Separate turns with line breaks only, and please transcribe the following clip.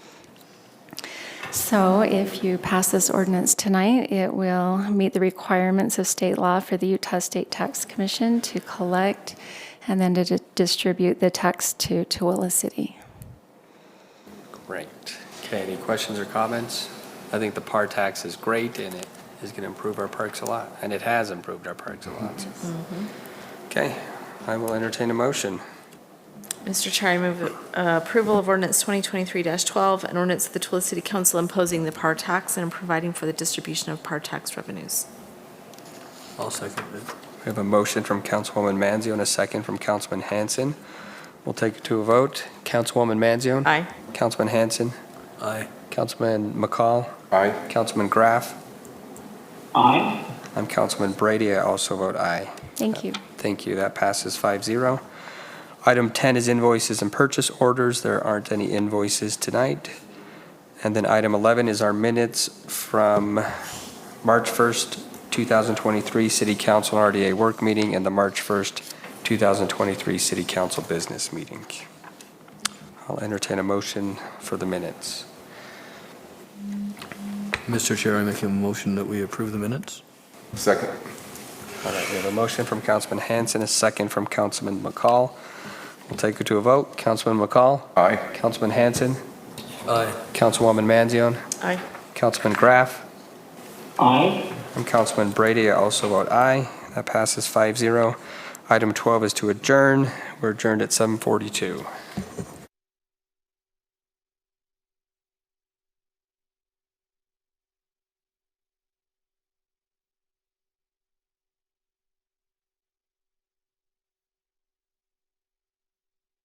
So if you pass this ordinance tonight, it will meet the requirements of state law for the Utah State Tax Commission to collect and then to di- distribute the tax to Tooele City.
Great. Okay, any questions or comments? I think the par tax is great, and it is going to improve our parks a lot, and it has improved our parks a lot. Okay, I will entertain a motion.
Mr. Chair, I move uh, approval of ordinance 2023-12, an ordinance of the Tulare City Council imposing the par tax and providing for the distribution of par tax revenues.
I'll second it. We have a motion from Councilwoman Manzio and a second from Councilman Hanson. We'll take it to a vote. Councilwoman Manzio?
Aye.
Councilman Hanson? Aye. Councilman McCall? Aye. Councilman Graff?
Aye.
I'm Councilman Brady. I also vote aye.
Thank you.
Thank you. That passes 5-0. Item 10 is invoices and purchase orders. There aren't any invoices tonight. And then item 11 is our minutes from March 1st, 2023 City Council and RDA Work Meeting and the March 1st, 2023 City Council Business Meeting. I'll entertain a motion for the minutes.
Mr. Chair, I make a motion that we approve the minutes.
Second.
All right, we have a motion from Councilman Hanson, a second from Councilman McCall. We'll take it to a vote. Councilman McCall?
Aye.
Councilman Hanson?
Aye.
Councilwoman Manzione,
Aye.
Councilman Graff,
Aye.
and Councilman Brady. I also vote aye. That passes 5-0. Item 12 is to adjourn. We're adjourned at 7:42.